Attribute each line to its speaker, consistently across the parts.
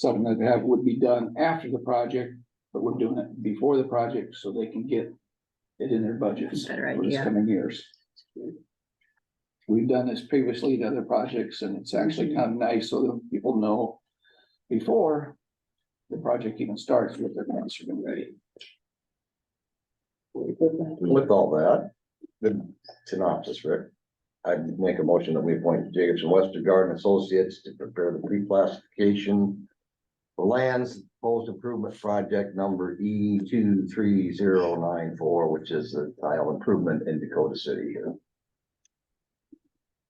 Speaker 1: something that have, would be done after the project, but we're doing it before the project so they can get it in their budgets
Speaker 2: Better
Speaker 1: for this
Speaker 2: idea.
Speaker 1: coming years. We've done this previously to other projects and it's actually kind of nice so that people know before the project even starts what their plans are gonna be.
Speaker 3: With all that, the synopsis, Rick. I'd make a motion that we appoint Jacobson Westergaard and Associates to prepare the pre-classification. for Lands Post Improvement Project number E two three zero nine four, which is the tile improvement in Dakota City here.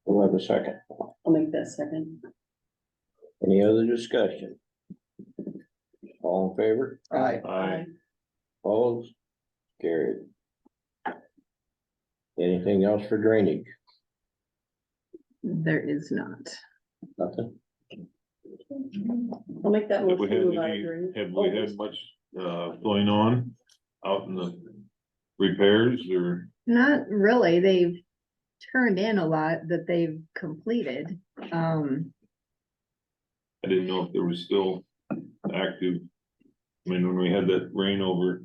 Speaker 4: We'll have a second.
Speaker 2: I'll make that second.
Speaker 4: Any other discussion? All in favor?
Speaker 1: Aye.
Speaker 2: Aye.
Speaker 4: Opposed? Carried. Anything else for drainage?
Speaker 2: There is not.
Speaker 4: Nothing?
Speaker 2: I'll make that
Speaker 5: Have we
Speaker 2: motion. to move
Speaker 5: had
Speaker 2: out of
Speaker 5: any-
Speaker 2: drainage.
Speaker 5: Have we had much, uh, going on out in the repairs or?
Speaker 2: Not really, they've turned in a lot that they've completed, um,
Speaker 5: I didn't know if there was still active. I mean, when we had that rain over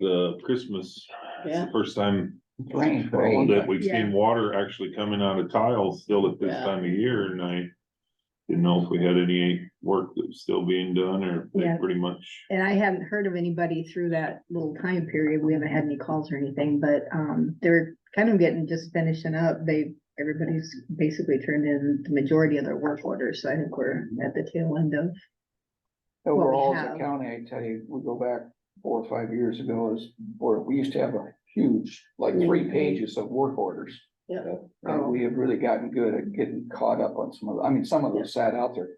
Speaker 5: the Christmas, it's
Speaker 2: Yeah.
Speaker 5: the first time
Speaker 1: Rain for a long
Speaker 5: that
Speaker 1: time.
Speaker 5: we've seen water actually coming out of tiles still at this
Speaker 2: Yeah.
Speaker 5: time of year and I didn't know if we had any work that was still being done or if
Speaker 2: Yeah.
Speaker 5: they pretty much.
Speaker 2: and I haven't heard of anybody through that little time period. We haven't had any calls or anything, but, um, they're kind of getting, just finishing up. They, everybody's basically turned in the majority of their work orders, so I think we're at the tail end of.
Speaker 1: Overall, as a
Speaker 2: have.
Speaker 1: county, I tell you, we go back four or five years ago is, or we used to have a huge, like three pages of work orders.
Speaker 2: Yeah.
Speaker 1: And we have really gotten good at getting caught up on some of, I mean, some of those sat out there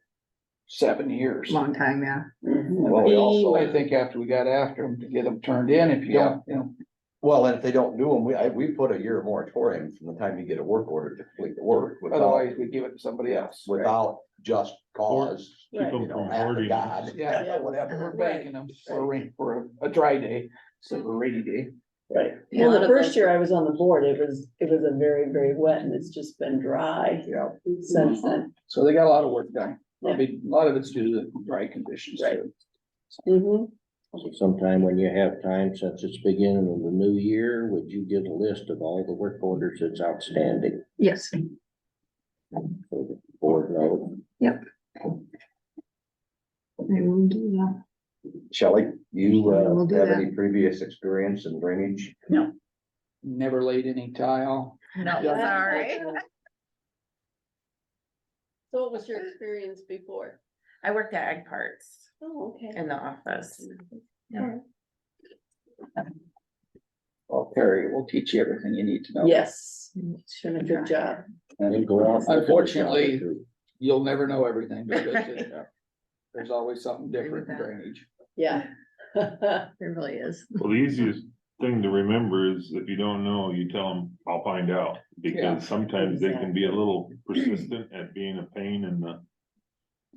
Speaker 1: seven years.
Speaker 2: Long time, yeah.
Speaker 3: Well, we
Speaker 1: Also, I think after we got after them to get them turned in, if you don't, you know,
Speaker 3: Well, and if they don't do them, we, I, we put a year moratorium from the time you get a work order to complete the work without,
Speaker 1: otherwise we give it to somebody
Speaker 3: yes,
Speaker 1: else.
Speaker 3: without just cause.
Speaker 5: People
Speaker 3: You know,
Speaker 5: from
Speaker 3: act of
Speaker 5: hoarding.
Speaker 3: God,
Speaker 1: Yeah.
Speaker 3: whatever.
Speaker 1: We're banking them for a rain, for a- a dry day, so a rainy day.
Speaker 6: Right,
Speaker 2: Yeah.
Speaker 6: well, the first year I was on the board, it was, it was a very, very wet and it's just been dry
Speaker 3: Yeah,
Speaker 6: since then.
Speaker 1: So they got a lot of work done. I mean, a lot of it's due to the dry conditions
Speaker 6: Right.
Speaker 1: too.
Speaker 6: Mhm.
Speaker 4: So Sometime when you have time, since it's beginning of the new year, would you get a list of all the work orders that's outstanding?
Speaker 2: Yes,
Speaker 4: So the Board knows.
Speaker 2: I will do that.
Speaker 3: Shelley, you
Speaker 2: We'll
Speaker 3: uh,
Speaker 2: do
Speaker 3: have
Speaker 2: that.
Speaker 3: any previous experience in drainage?
Speaker 1: Never laid any tile.
Speaker 2: No,
Speaker 1: Yeah.
Speaker 7: Sorry.
Speaker 6: So what was your experience before?
Speaker 7: I worked at Egg Parts
Speaker 6: Oh, okay.
Speaker 7: in the office.
Speaker 1: Well, Perry, we'll teach you everything you need to know.
Speaker 6: Yes, doing a good job.
Speaker 4: And go out.
Speaker 1: Unfortunately, you'll never know everything because it- there's always something
Speaker 2: Agree
Speaker 1: different in
Speaker 2: with that.
Speaker 1: drainage.
Speaker 6: Yeah.
Speaker 2: There really is.
Speaker 5: Well, the easiest thing to remember is if you don't know, you tell them, I'll find out.
Speaker 1: Yeah.
Speaker 5: Because sometimes they can be a little persistent at being a pain in the.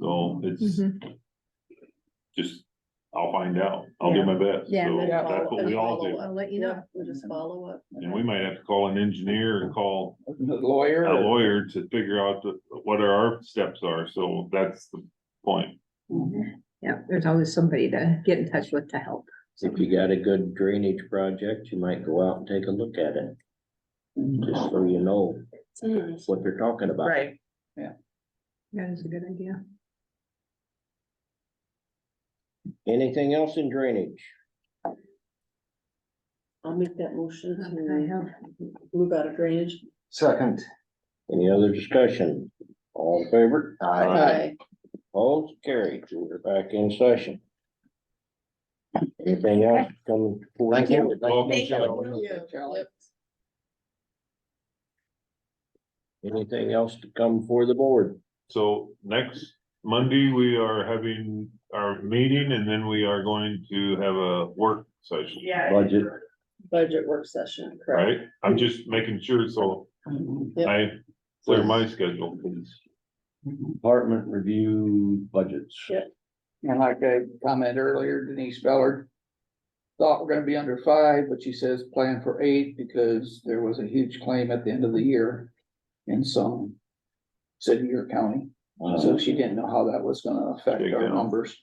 Speaker 5: So it's
Speaker 2: Mhm.
Speaker 5: just, I'll find out. I'll do my best.
Speaker 2: Yeah,
Speaker 5: So
Speaker 6: then
Speaker 5: that's
Speaker 6: follow-
Speaker 5: what we all
Speaker 6: follow
Speaker 5: do.
Speaker 6: up.
Speaker 2: I'll let you know.
Speaker 6: We'll just follow up.
Speaker 5: And we might have to call an engineer and call
Speaker 1: The
Speaker 5: a
Speaker 1: lawyer.
Speaker 5: lawyer to figure out the- what our steps are. So that's the point.
Speaker 2: Yeah, there's always somebody to get in touch with to help.
Speaker 4: If you got a good drainage project, you might go out and take a look at it, just so you know
Speaker 6: Mm.
Speaker 4: what they're talking about.
Speaker 7: Right.
Speaker 2: That is a good idea.
Speaker 4: Anything else in drainage?
Speaker 6: I'll make that motion
Speaker 2: I
Speaker 6: to
Speaker 2: have
Speaker 6: move out of drainage.
Speaker 3: Second.
Speaker 4: Any other discussion? All in favor?
Speaker 3: I,
Speaker 6: Aye.
Speaker 4: All carried. We're back in session. Anything else coming? forward?
Speaker 3: thank you.
Speaker 5: Thank
Speaker 1: Charlie.
Speaker 4: Anything else to come for the board?
Speaker 5: So next Monday, we are having our meeting and then we are going to have a work session.
Speaker 4: Budget.
Speaker 6: Budget work session, correct?
Speaker 5: Right, I'm just making sure, so
Speaker 1: Mm-hmm.
Speaker 5: I clear my schedule, please.
Speaker 3: Department review budgets.
Speaker 1: And like I commented earlier, Denise Bellard thought we're gonna be under five, but she says plan for eight because there was a huge claim at the end of the year in some city or county. So she didn't know how that was gonna affect
Speaker 5: Big
Speaker 1: our
Speaker 5: deal.
Speaker 1: numbers.